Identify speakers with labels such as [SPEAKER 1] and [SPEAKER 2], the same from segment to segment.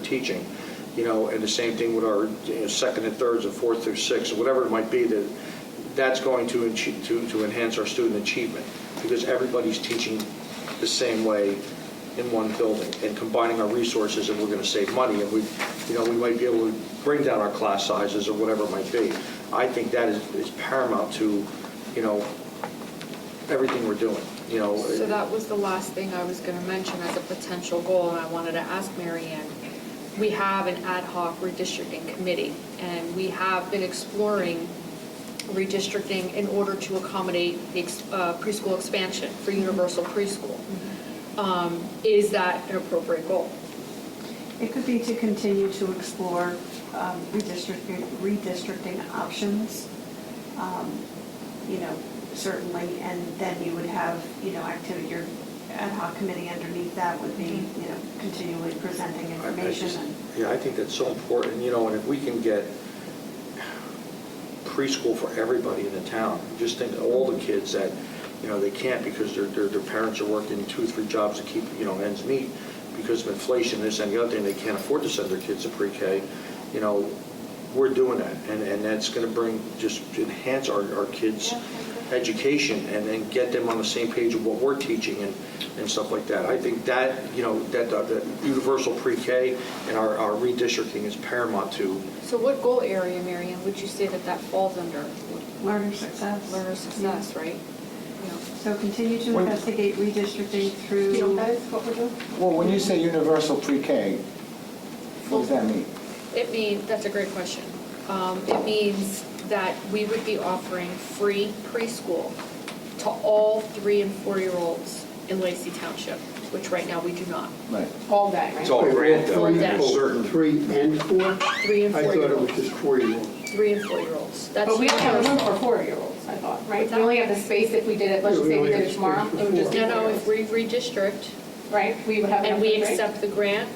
[SPEAKER 1] teaching, you know, and the same thing with our you know, second and thirds and fourth through sixth, whatever it might be, that, that's going to, enche- to, to enhance our student achievement, because everybody's teaching the same way in one building, and combining our resources, and we're gonna save money, and we, you know, we might be able to bring down our class sizes or whatever it might be. I think that is is paramount to, you know, everything we're doing, you know.
[SPEAKER 2] So that was the last thing I was gonna mention as a potential goal, and I wanted to ask Mary Ann. We have an ad hoc redistricting committee, and we have been exploring redistricting in order to accommodate the ex- uh, preschool expansion for universal preschool. Um, Is that an appropriate goal?
[SPEAKER 3] It could be to continue to explore um, redistricting, redistricting options, um, you know, certainly, and then you would have, you know, activity, your ad hoc committee underneath that would be,
[SPEAKER 2] Mm-hmm.
[SPEAKER 3] you know, continually presenting
[SPEAKER 1] I- I
[SPEAKER 3] information
[SPEAKER 1] just-
[SPEAKER 3] and.
[SPEAKER 1] Yeah, I think that's so important, you know, and if we can get preschool for everybody in the town, just think of all the kids that, you know, they can't because their, their, their parents are working two, three jobs to keep, you know, ends meet because of inflation, this and the other thing, they can't afford to send their kids to pre-K, you know, we're doing that, and, and that's gonna bring, just enhance our, our kids' education and then get them on the same page of what we're teaching and, and stuff like that. I think that, you know, that, that that universal pre-K and our, our redistricting is paramount to,
[SPEAKER 2] So what goal area, Mary Ann, would you say that that falls under?
[SPEAKER 3] Learner success.
[SPEAKER 2] Learner success, right?
[SPEAKER 3] So continue to
[SPEAKER 4] When-
[SPEAKER 3] investigate redistricting through.
[SPEAKER 5] You guys, what we're doing?
[SPEAKER 4] Well, when you say universal pre-K, what does that mean?
[SPEAKER 2] It means, that's a great question. Um, It means that we would be offering free preschool to all three and four-year-olds in Lacey Township, which right now we do not.
[SPEAKER 4] Right.
[SPEAKER 5] All day, right?
[SPEAKER 1] it's all grant though,
[SPEAKER 6] Three,
[SPEAKER 1] and it's certain.
[SPEAKER 6] Three and four?
[SPEAKER 2] Three and
[SPEAKER 6] I thought it was
[SPEAKER 2] four-year-olds.
[SPEAKER 6] just four-year-olds.
[SPEAKER 2] Three and four-year-olds. That's
[SPEAKER 5] But we only have room
[SPEAKER 2] universal.
[SPEAKER 5] for four-year-olds, I thought, right?
[SPEAKER 2] What's
[SPEAKER 5] We only have the space if we did it, let's
[SPEAKER 6] Yeah,
[SPEAKER 5] just
[SPEAKER 6] we
[SPEAKER 5] say we
[SPEAKER 6] only
[SPEAKER 5] did
[SPEAKER 6] have
[SPEAKER 5] it tomorrow,
[SPEAKER 6] space for
[SPEAKER 5] it would just be
[SPEAKER 2] No, no, if
[SPEAKER 5] four-year-olds,
[SPEAKER 2] we redistrict
[SPEAKER 5] right? We would have enough.
[SPEAKER 2] and we
[SPEAKER 5] room, right?
[SPEAKER 2] accept the grant,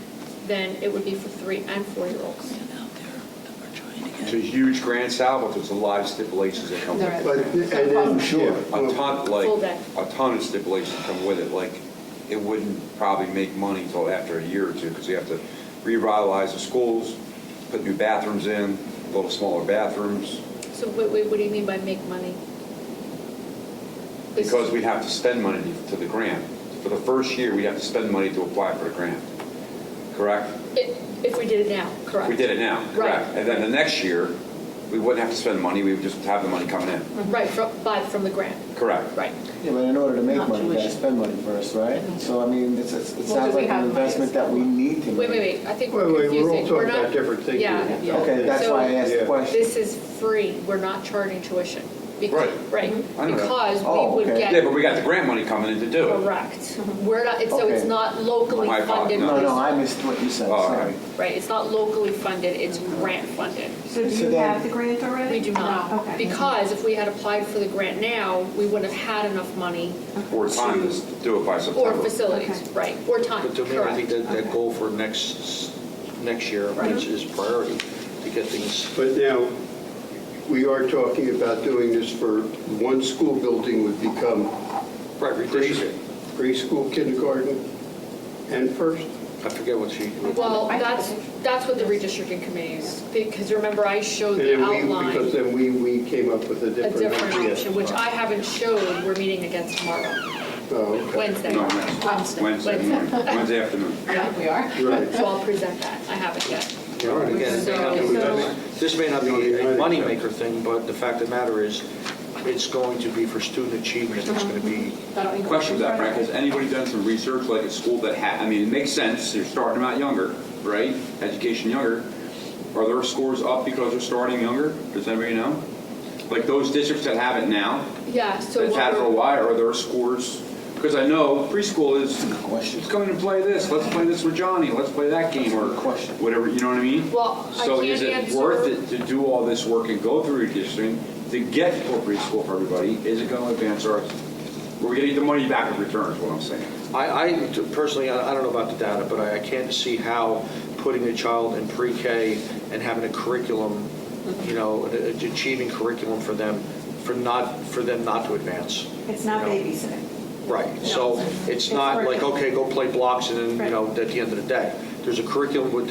[SPEAKER 2] then it would be for three and four-year-olds.
[SPEAKER 7] out there that we're trying to
[SPEAKER 8] It's
[SPEAKER 7] get.
[SPEAKER 8] a huge grant sal, but there's a lot of stipulations that come with it.
[SPEAKER 6] But, and
[SPEAKER 1] Oh,
[SPEAKER 6] then,
[SPEAKER 4] Sure.
[SPEAKER 8] A
[SPEAKER 6] yeah, well,
[SPEAKER 8] ton,
[SPEAKER 2] Full day.
[SPEAKER 8] like, a ton of stipulations come with it, like, it wouldn't probably make money until after a year or two, because you have to revitalize the schools, put new bathrooms in, a little smaller bathrooms,
[SPEAKER 2] So what, what what do you mean by make money? This-
[SPEAKER 8] because we have to spend money to the grant. For the first year, we have to spend money to apply for the grant, correct?
[SPEAKER 2] If if we did it now, correct?
[SPEAKER 8] We did it now, correct?
[SPEAKER 2] Right.
[SPEAKER 8] And then the next year, we wouldn't have to spend money, we would just have the money coming in,
[SPEAKER 5] Mm-hmm.
[SPEAKER 2] Right, from, by, from the grant,
[SPEAKER 8] correct?
[SPEAKER 2] right.
[SPEAKER 4] Yeah, but in order to make money, you gotta spend money first, right? So I mean, it's, it's- it
[SPEAKER 5] Well,
[SPEAKER 4] sounds
[SPEAKER 5] do we
[SPEAKER 4] like
[SPEAKER 5] have
[SPEAKER 4] an
[SPEAKER 5] money?
[SPEAKER 4] investment that we need to
[SPEAKER 2] Wait, wait,
[SPEAKER 4] make.
[SPEAKER 2] wait, I think
[SPEAKER 6] Wait,
[SPEAKER 2] we're
[SPEAKER 6] wait, we're all
[SPEAKER 2] confusing.
[SPEAKER 6] talking
[SPEAKER 2] not-
[SPEAKER 6] about different things
[SPEAKER 2] Yeah,
[SPEAKER 6] here.
[SPEAKER 2] yeah.
[SPEAKER 4] Okay, that's
[SPEAKER 2] So
[SPEAKER 4] why I asked the
[SPEAKER 6] Yeah.
[SPEAKER 4] question.
[SPEAKER 2] This is free, we're not charging tuition. Bec-
[SPEAKER 8] Right.
[SPEAKER 2] Right,
[SPEAKER 8] I know that.
[SPEAKER 2] because
[SPEAKER 4] Oh,
[SPEAKER 2] we would
[SPEAKER 4] okay.
[SPEAKER 2] get.
[SPEAKER 8] Yeah, but we got the grant money coming in to do it.
[SPEAKER 2] Correct. We're not, it's- so it's
[SPEAKER 4] Okay.
[SPEAKER 2] not locally
[SPEAKER 8] My fault,
[SPEAKER 2] funded.
[SPEAKER 4] No, no,
[SPEAKER 2] preschool.
[SPEAKER 4] I missed what you said,
[SPEAKER 8] Oh,
[SPEAKER 4] sorry.
[SPEAKER 8] okay.
[SPEAKER 2] Right, it's not locally funded, it's grant funded.
[SPEAKER 3] So do
[SPEAKER 4] So
[SPEAKER 3] you
[SPEAKER 4] then-
[SPEAKER 3] have the grant already?
[SPEAKER 2] We do not,
[SPEAKER 3] Okay.
[SPEAKER 2] because if we had applied for the grant now, we wouldn't have had enough money
[SPEAKER 8] Or time to s- do it by
[SPEAKER 2] or
[SPEAKER 8] September.
[SPEAKER 2] facilities,
[SPEAKER 3] Okay.
[SPEAKER 2] right, or time,
[SPEAKER 1] But to me, I think
[SPEAKER 2] correct.
[SPEAKER 1] that, that goal for next, next year is is priority, to get things
[SPEAKER 6] but now, we are talking about doing this for, one school building would become
[SPEAKER 1] right redistricted.
[SPEAKER 6] preschool, kindergarten, and first?
[SPEAKER 1] I forget what she,
[SPEAKER 2] Well, that's, that's what the redistricting committee is, because remember, I showed
[SPEAKER 5] Oh,
[SPEAKER 6] And
[SPEAKER 2] the
[SPEAKER 6] then we, because
[SPEAKER 2] outline,
[SPEAKER 6] then we, we came up with a
[SPEAKER 2] a
[SPEAKER 6] different
[SPEAKER 2] different
[SPEAKER 6] idea.
[SPEAKER 2] option, which I haven't showed, we're meeting again tomorrow,
[SPEAKER 6] Oh, okay.
[SPEAKER 2] Wednesday.
[SPEAKER 8] No, Wednesday. Wednesday morning, Wednesday afternoon.
[SPEAKER 5] Yeah, we are.
[SPEAKER 6] Right.
[SPEAKER 2] So I'll present that, I haven't yet.
[SPEAKER 1] you know, and again, it may not be- this may not be a moneymaker thing, but the fact of the matter is, it's going to be for student achievement, it's going to be,
[SPEAKER 5] I don't think-
[SPEAKER 8] Question with that, Frank, has anybody done some research, like a school that had, I mean, it makes sense, you're starting them out younger, right? Education younger. Are their scores up because they're starting younger? Does anybody know? Like those districts that have it now,
[SPEAKER 2] Yeah, so
[SPEAKER 8] that's
[SPEAKER 2] what
[SPEAKER 8] had it for a
[SPEAKER 2] we're,
[SPEAKER 8] while, are their scores? Because I know preschool is, let's come in and play this, let's play this with Johnny, let's play that game, or
[SPEAKER 4] Question.
[SPEAKER 8] whatever, you know what I mean?
[SPEAKER 2] Well, I
[SPEAKER 8] So
[SPEAKER 2] can't
[SPEAKER 8] is it
[SPEAKER 2] answer-
[SPEAKER 8] worth it to do all this work and go through redistricting to get for preschool for everybody? Is it going to advance our, we're getting the money back in return, is what I'm saying.
[SPEAKER 1] I, I personally, I I don't know about the data, but I I can't see how putting a child in pre-K and having a curriculum, you know, a- a- achieving curriculum for them, for not, for them not to advance.
[SPEAKER 3] It's not
[SPEAKER 1] you know?
[SPEAKER 3] babysitting.
[SPEAKER 1] Right, so it's
[SPEAKER 3] It's
[SPEAKER 1] not like,
[SPEAKER 3] working.
[SPEAKER 1] okay, go play blocks and then, you
[SPEAKER 3] Right.
[SPEAKER 1] know, at the end of the day. There's a curriculum with,